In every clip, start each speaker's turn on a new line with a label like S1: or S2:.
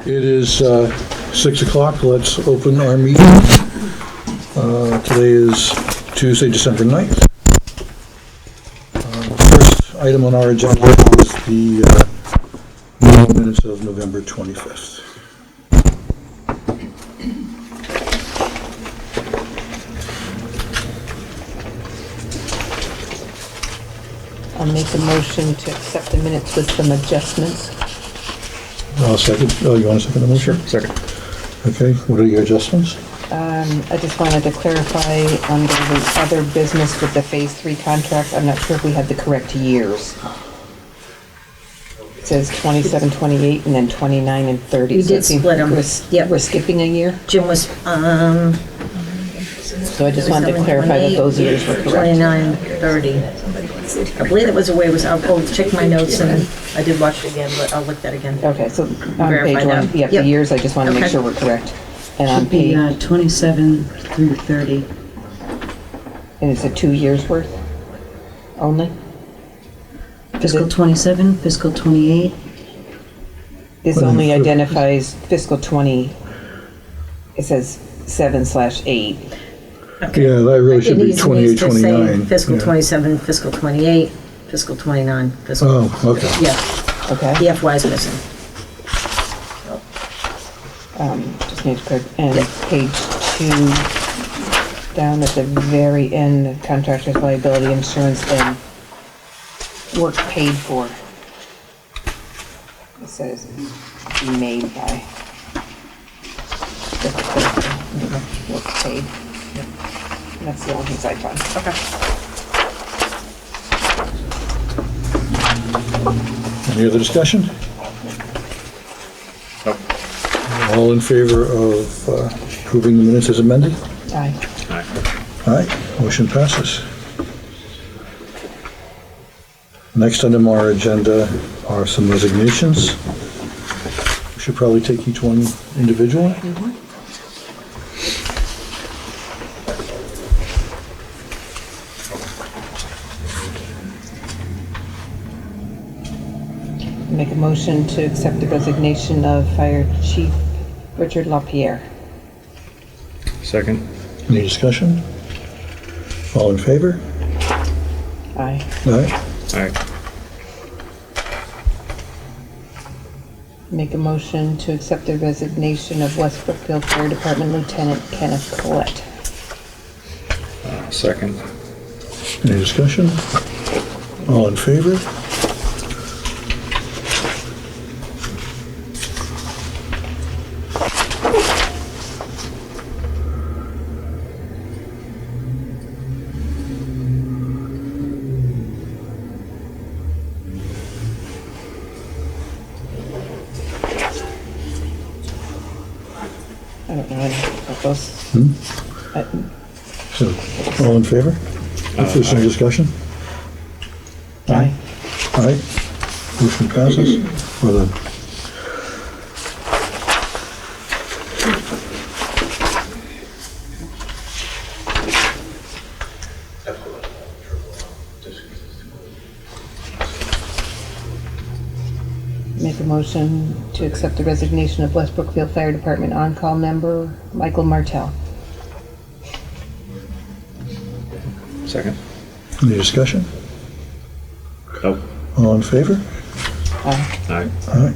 S1: It is uh, 6 o'clock, let's open our meeting. Uh, Today is Tuesday, December 9th. Uh, First item on our agenda is the uh, meeting minutes of November 25th.
S2: I'll make a motion to accept the minutes with some adjustments.
S1: Uh, Second, oh, you want a second motion?
S3: Second.
S1: Okay, what are your adjustments?
S2: Um, I just wanted to clarify under the other business with the phase three contracts, I'm not sure if we had the correct years. It says 27, 28, and then twenty-nine and thirty.
S4: You
S2: So
S4: did
S2: it seems
S4: split 'em.
S2: we're s-
S4: Yep.
S2: We're skipping a year,
S4: Jim was, um.
S2: so I just wanted to clarify that those years were correct.
S4: Twenty-nine, thirty. I believe it was away, was, I'll go check my notes and I did watch it again, but I'll look that again.
S2: Okay, so on page
S4: Verify
S2: one,
S4: that.
S2: yeah, the
S4: Yep.
S2: years, I just wanna make
S4: Okay.
S2: sure we're correct. And on
S5: Should be
S2: page,
S5: uh, 27 through 30.
S2: and it's a two years worth only?
S5: Fiscal 27, fiscal 28,
S2: This
S1: Well,
S2: only
S1: if-
S2: identifies fiscal twenty, it says seven slash eight.
S1: Yeah, that really
S4: It
S1: should be
S4: needs- needs
S1: 28,
S4: to say
S1: 29.
S4: Fiscal
S1: Yeah.
S4: twenty-seven, fiscal twenty-eight, fiscal twenty-nine, fiscal,
S1: Oh, okay.
S4: yeah,
S2: Okay,
S4: the FY is missing.
S2: just need to correct, and page two, down at the very end, contractor's liability insurance and work paid for. It says be made by. Work paid. That's the only things I found.
S1: Any other discussion?
S3: Nope.
S1: All in favor of uh, approving the minutes as amended?
S2: Aye.
S1: Aye, motion passes. Next item on our agenda are some resignations. We should probably take each one individually.
S2: Make a motion to accept the resignation of Fire Chief Richard LaPierre.
S3: Second.
S1: Any discussion? All in favor?
S2: Aye.
S1: Aye.
S3: Aye.
S2: Make a motion to accept the resignation of West Brookfield Fire Department Lieutenant Kenneth Collette.
S3: Second.
S1: Any discussion? All in favor?
S2: I don't know anything about those. Uh, I-
S1: So, all in favor? If there's no discussion?
S2: Aye.
S1: Aye. Motion passes for the...
S2: Make a motion to accept the resignation of West Brookfield Fire Department on-call member Michael Martell.
S3: Second.
S1: Any discussion?
S3: Nope.
S1: All in favor?
S2: Aye.
S3: Aye.
S1: Aye.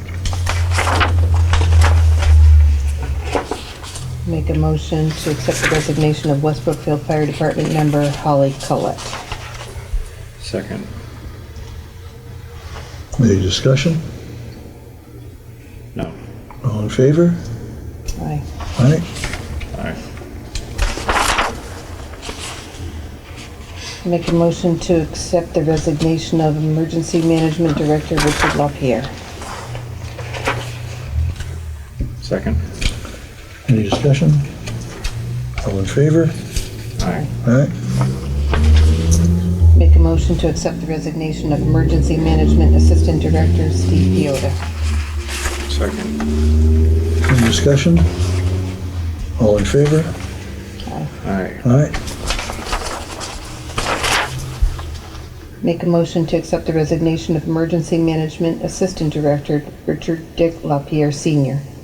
S2: Make a motion to accept the resignation of West Brookfield Fire Department member Holly Collette.
S3: Second.
S1: Any discussion?
S3: No.
S1: All in favor?
S2: Aye.
S1: Aye.
S3: Aye.
S2: Make a motion to accept the resignation of Emergency Management Director Richard LaPierre.
S3: Second.
S1: Any discussion? All in favor?
S3: Aye.
S1: Aye.
S2: Make a motion to accept the resignation of Emergency Management Assistant Director Steve Piota.
S3: Second.
S1: Any discussion? All in favor?
S3: Aye.
S1: Aye.
S2: Make a motion to accept the resignation of Emergency Management Assistant Director Richard Dick LaPierre Senior.